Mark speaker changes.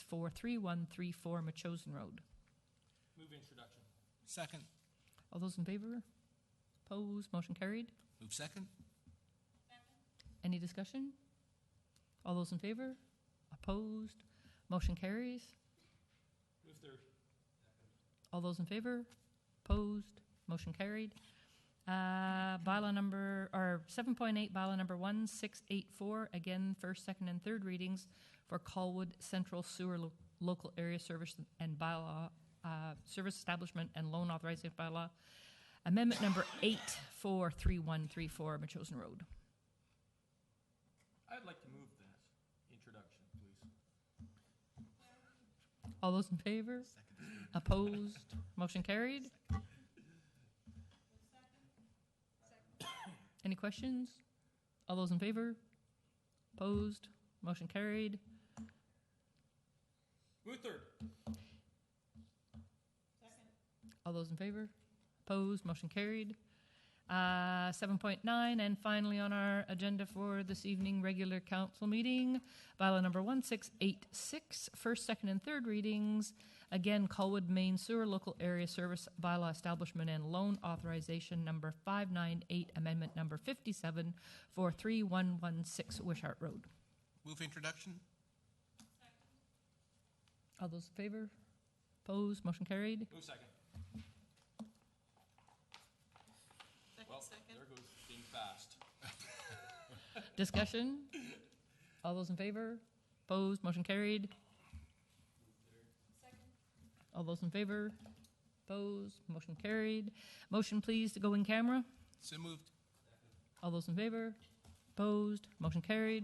Speaker 1: for 3134 Machosen Road.
Speaker 2: Move introduction.
Speaker 3: Second.
Speaker 1: All those in favor? Opposed? Motion carried.
Speaker 3: Move second.
Speaker 1: Any discussion? All those in favor? Opposed? Motion carries.
Speaker 2: Move third.
Speaker 1: All those in favor? Opposed? Motion carried. Uh, Bylaw number, or 7.8, bylaw number 1684, again, first, second, and third readings for Colwood Central Sewer Lo- Local Area Service and Bylaw, uh, Service Establishment and Loan Authorization Bylaw. Amendment number 843134, Machosen Road.
Speaker 2: I'd like to move that introduction, please.
Speaker 1: All those in favor? Opposed? Motion carried? Any questions? All those in favor? Opposed? Motion carried?
Speaker 2: Move third.
Speaker 1: All those in favor? Opposed? Motion carried? Uh, 7.9, and finally on our agenda for this evening, regular council meeting, bylaw number 1686, first, second, and third readings. Again, Colwood Main Sewer Local Area Service Bylaw Establishment and Loan Authorization Number 598, Amendment Number 57 for 3116 Wishart Road.
Speaker 3: Move introduction.
Speaker 1: All those in favor? Opposed? Motion carried?
Speaker 2: Move second. Well,
Speaker 4: Second, second.
Speaker 2: there goes being fast.
Speaker 1: Discussion? All those in favor? Opposed? Motion carried? All those in favor? Opposed? Motion carried? Motion please to go in camera?
Speaker 3: So moved.
Speaker 1: All those in favor? Opposed? Motion carried?